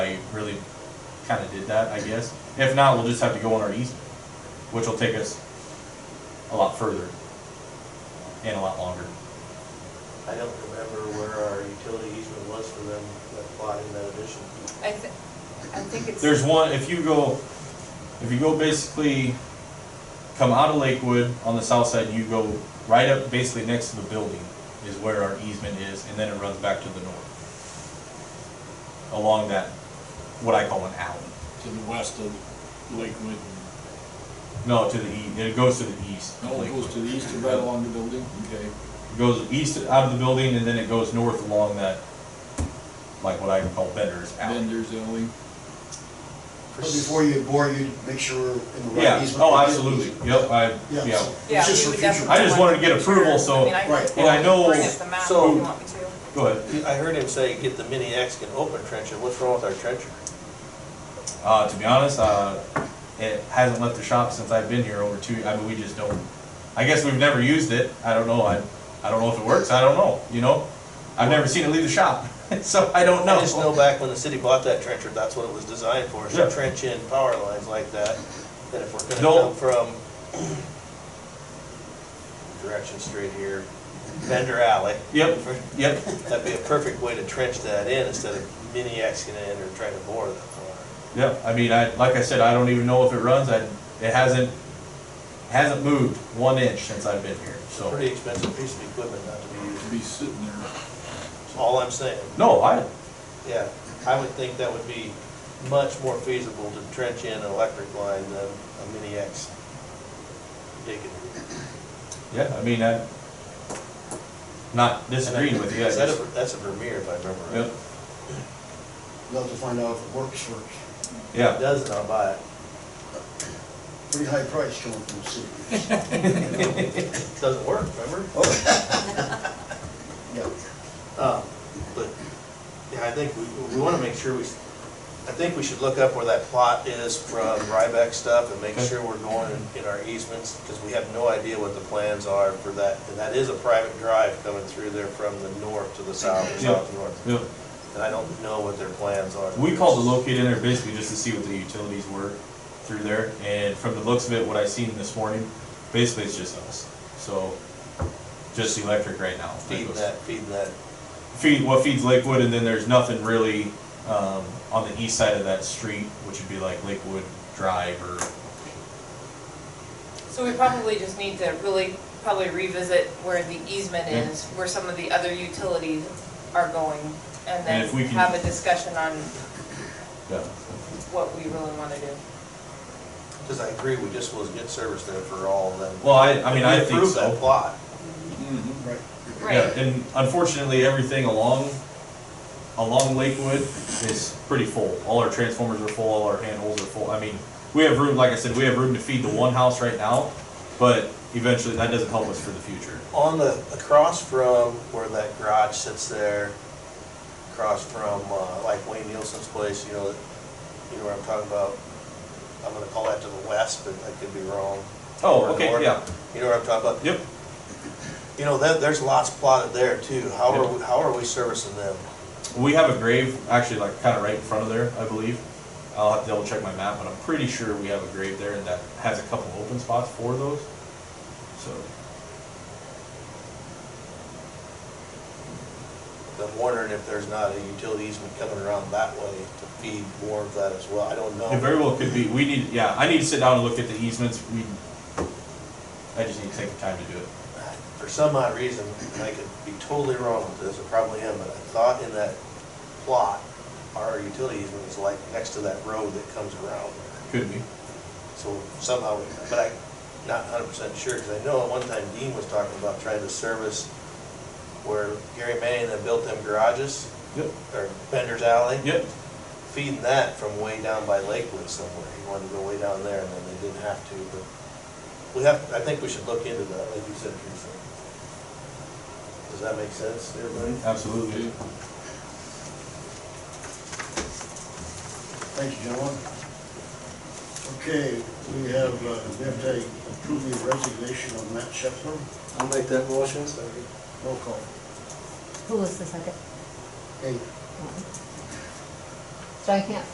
really kinda did that, I guess. If not, we'll just have to go on our easement, which will take us a lot further and a lot longer. I don't remember where our utility easement was for them that bought in that addition. I think, I think it's. There's one, if you go, if you go basically, come out of Lakewood on the south side, you go right up basically next to the building is where our easement is, and then it runs back to the north. Along that, what I call an alley. to the west of Lakewood. No, to the e, it goes to the east. of No, Oh, it Lakewood. goes to the east and right along the building, okay. It Goes east out of the building, and then it goes north along that, like what I call Bender's Then alley. there's Ellie. But before you bore, you make sure we're in the right Yeah, easement. oh, absolutely, yep, I, Yeah, yeah. so Yeah, it's just we would for future. definitely I just wanted to get want make approval, sure. so- I mean, I can Right. And I know- Bring up the map if you so- want me to. Go ahead. I heard him say, get the mini Mexican open trencher, what's wrong with our trencher? Uh, to be honest, uh, it hasn't left the shop since I've been here over two. I mean, we just don't. I guess we've never used it. I don't know. I, I don't know if it works. I don't know. You know, I've never seen it leave the shop, so I don't know. I just know back when the city bought that trencher, that's what it was designed for, is Yeah. to trench in power lines like that, that if we're No. gonna come from direction straight here, Bender Alley. Yep. Yep. That'd be a perfect way to trench that in instead of mini Mexican in or trying to bore that far. Yep. I mean, I like I said, I don't even know if it runs. I it hasn't hasn't moved one inch since I've been here. It's a So pretty expensive piece of equipment not to be used. to be sitting there. All I'm saying, no, I yeah, I would think that would be much more feasible to trench in an electric line than a mini X digging. yeah. I mean, I not disagreeing with you. I Is that a, just- that's a Vermeer, if I remember right. Yep. Love to find out if it works for, If it Yeah. Doesn't, I'll buy it. pretty high price coming from the city. It Doesn't work, remember? Yeah. Uh, But, yeah, I think we, we wanna make sure we, I think we should look up where that plot is from Ryback stuff and make Okay. sure we're going in- in our easements, because we have no idea what the plans are for that. And that is a private drive coming through there from the north to the south, or Yeah. south to north. Yep. And I don't know what their plans are. We called the locate in there basically just to see what the utilities were through there, and from the looks of it, what I seen this morning, basically it's just us. So, just electric right now. Feeding that, feeding that. Feed, what feeds Lakewood, and then there's nothing really, um, on the east side of that street, which would be like Lakewood Drive or, So we probably just need to really probably revisit where the easement Yeah. is, where some of the other utilities are going. And then if we can- have a discussion on yeah. what we really want to do. Because I agree, we just was good service there for all of them. Well, I, I mean, I We think approved so. that plot. Right. Yeah, and unfortunately, everything along, along Lakewood is pretty full. All our transformers are full, all our handholds are full. I mean, we have room, like I said, we have room to feed the one house right now, but eventually that doesn't help us for the future. On the, across from where that garage sits there, across from, uh, like Wayne Nielsen's place, you know, you know what I'm talking about? I'm gonna call that to the west, but I could be wrong. Oh, Or okay, north. yeah. You know what I'm talking about? Yep, You know, that, there's lots plotted there too. How Yep. are, we- how are we servicing them? we have a grave, actually like kinda right in front of there, I believe. I'll have to double check my map, but I'm pretty sure we have a grave there and that has a couple open spots for those, so. I'm wondering if there's not a utility easement coming around that way to feed more of that as well. I don't It very know. well could be, we need, yeah, I need to sit down and look at the easements, we, I just need to take the time to do it. For some odd reason, and I could be totally wrong with this, I probably am, but I thought in that plot, our utility easement is like next to that road that comes around. Could be. So somehow, but I'm not hundred percent sure, because I know at one time Dean was talking about trying to service where Gary Manning that built them garages, Yep. or Bender's Alley. Yep. feeding that from way down by Lakewood somewhere. He wanted to go way down there, and then they didn't have to, but we have, I think we should look into that, like you said, Teresa. Does that make sense, to everybody? Absolutely. Thank you, gentlemen. Okay, we have, uh, we have to approve the resignation of Matt Shepler. I'll make that motion. Roll call. Who was the second? Hey, So I can't